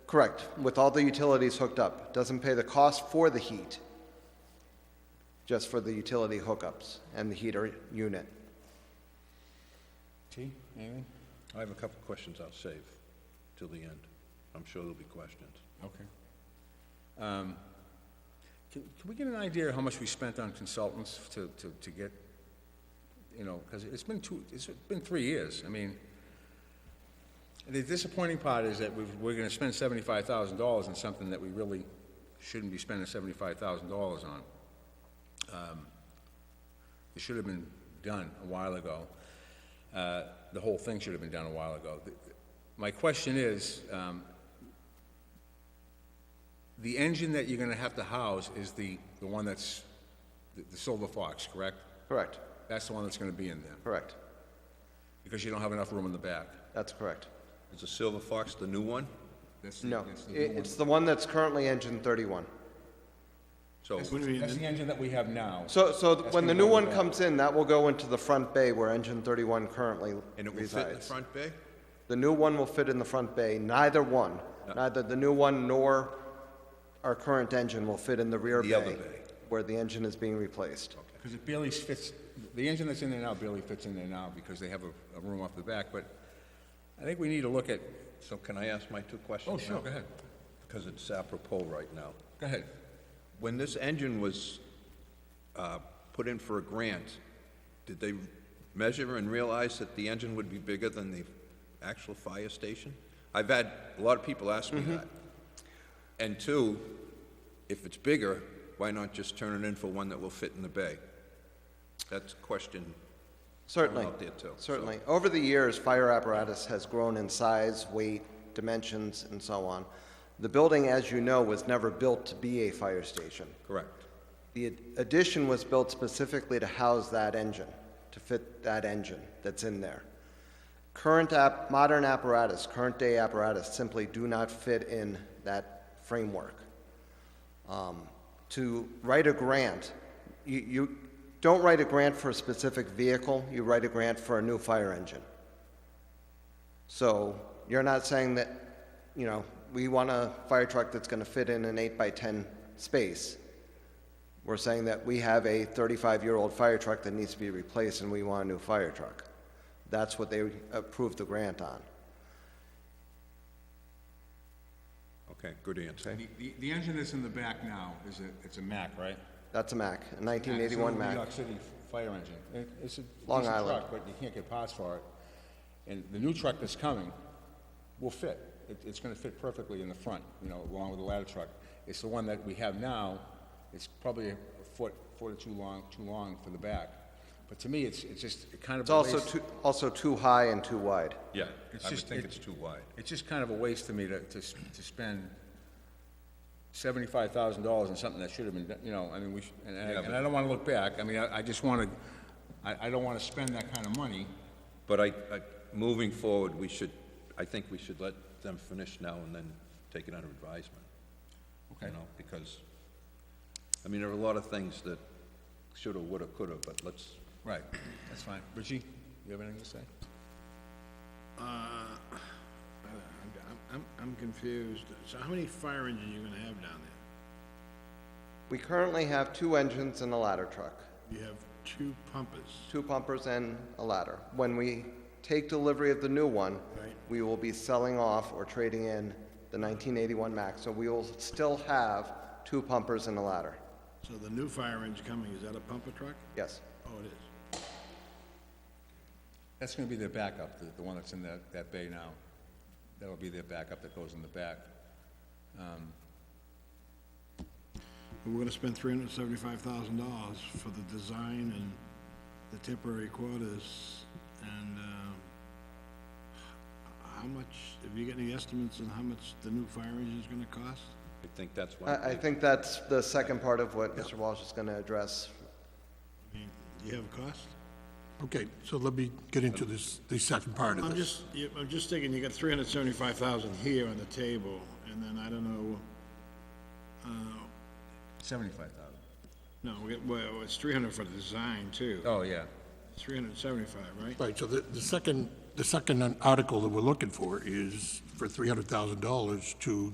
Correct, with all the utilities hooked up. Doesn't pay the cost for the heat, just for the utility hookups and the heater unit. T, anything? I have a couple of questions I'll save till the end. I'm sure there'll be questions. Okay. Um, Can can we get an idea of how much we spent on consultants to, to, to get, you know, because it's been two, it's been three years, I mean, the disappointing part is that we've, we're gonna spend seventy-five thousand dollars on something that we really shouldn't be spending seventy-five thousand dollars on. Um, It should have been done a while ago. Uh, The whole thing should have been done a while ago. The- My question is, um, the engine that you're gonna have to house is the, the one that's, the- the Silver Fox, correct? Correct, That's the one that's gonna be in there, correct. because you don't have enough room in the back. That's correct. Is the Silver Fox the new one? That's the- No, that's the i- new one. it's the one that's currently engine 31. So, That's the engine that we have now. So, so th- That's when the gonna new go one in the back. comes in, that will go into the front bay where engine 31 currently and it will fit in the resides. front bay? The new one will fit in the front bay, neither one, neither the new one nor our current engine will fit in the rear The other bay bay. where the engine is being replaced. Because it barely fits, the engine that's in there now barely fits in there now, because they have a, a room off the back, but I think we need to look at, So can I ask my two questions oh, sure, now? go ahead, Because it's apropos right now. go ahead. When this engine was uh, put in for a grant, did they measure and realize that the engine would be bigger than the actual fire station? I've had a lot of people ask me that. And two, if it's bigger, why not just turn it in for one that will fit in the bay? That's question, Certainly. out there too, so- Certainly. Over the years, fire apparatus has grown in size, weight, dimensions, and so on. The building, as you know, was never built to be a fire station. correct. The ad- addition was built specifically to house that engine, to fit that engine that's in there. Current app, modern apparatus, current day apparatus simply do not fit in that framework. Um, To write a grant, you, you don't write a grant for a specific vehicle, you write a grant for a new fire engine. So you're not saying that, you know, we want a fire truck that's gonna fit in an eight by ten space. We're saying that we have a 35-year-old fire truck that needs to be replaced, and we want a new fire truck. That's what they approved the grant on. Okay, good answer. The, the- the engine that's in the back now is a, it's a Mack, right? That's a Mack, a It's an 1981 old New Mack. York City fire engine. It- It's a Long decent Island. truck, but you can't get parts for it. And the new truck that's coming will fit. It, it's gonna fit perfectly in the front, you know, along with the ladder truck. It's the one that we have now, it's probably a foot, foot or two long, too long for the back. But to me, it's, it's just, it kind of. It's also too, also too high and too wide. Yeah, It's I would just- think it- it's too wide. It's just kind of a waste to me to, to, s- to spend seventy-five thousand dollars on something that should have been, done, you know, I mean, we, should- and I, and I don't wanna look back, I mean, I, I just wanna, I, I don't wanna spend that kind of money. But I, I- moving forward, we should, I think we should let them finish now and then take it under advisement. You know, because, I mean, there are a lot of things that shoulda, woulda, coulda, but let's, Right, that's fine. Richie, you have anything to say? I'm, I'm, I'm confused. So how many fire engines you gonna have down there? We currently have two engines and a ladder truck, You have two pumpers. two pumpers and a ladder. When we take delivery of the new one, Right. we will be selling off or trading in the 1981 Mack, so we will still have two pumpers and a ladder. So the new fire engine coming, is that a pumper truck? Yes. Oh, it is. That's gonna be their backup, the, the one that's in that, that bay now. That'll be their backup that goes in the back. And we're gonna spend three hundred and seventy-five thousand dollars for the design and the temporary quarters and, um, how much, have you got any estimates on how much the new fire engine's gonna cost? I think that's why. I, I think that's the second part of what Mr. Walsh is gonna address. I mean, Do you have a cost? Okay, so let me get into this, the second part of I'm this. just, you- I'm just thinking, you got three hundred seventy-five thousand here on the table, and then I don't know, Seventy-five thousand. no, we- well, it's three hundred for the design too, Oh, yeah. three hundred seventy-five, right? Right, so the, the second, the second article that we're looking for is for $300,000 to